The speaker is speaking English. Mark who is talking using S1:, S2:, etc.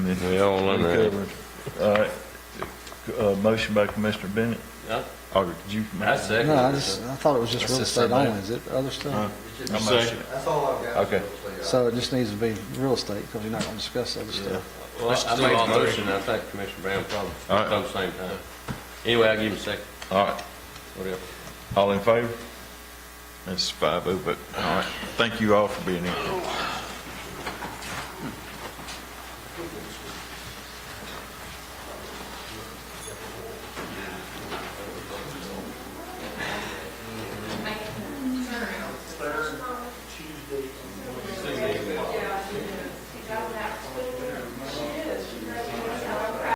S1: it?
S2: We all
S1: We
S2: under it.
S1: covered. All right. Uh, motion by Commissioner Bennett.
S3: Yeah,
S1: Or did you? make
S3: I
S1: it?
S3: second
S4: No, I
S3: it.
S4: just, I thought it was just
S1: That's
S4: real
S1: just
S4: estate
S1: somebody-
S4: only, is it other
S1: Huh?
S4: stuff?
S1: I motion.
S5: That's all I've got.
S1: Okay.
S4: So it just needs to be real estate, because you're not going to discuss other stuff.
S3: Well, I made a motion, I think Commissioner Brown probably,
S1: All right.
S3: at the same time. Anyway, I'll give him a second,
S1: All right.
S3: whatever.
S1: All in favor? That's five oh, but, all right. Thank you all for being here.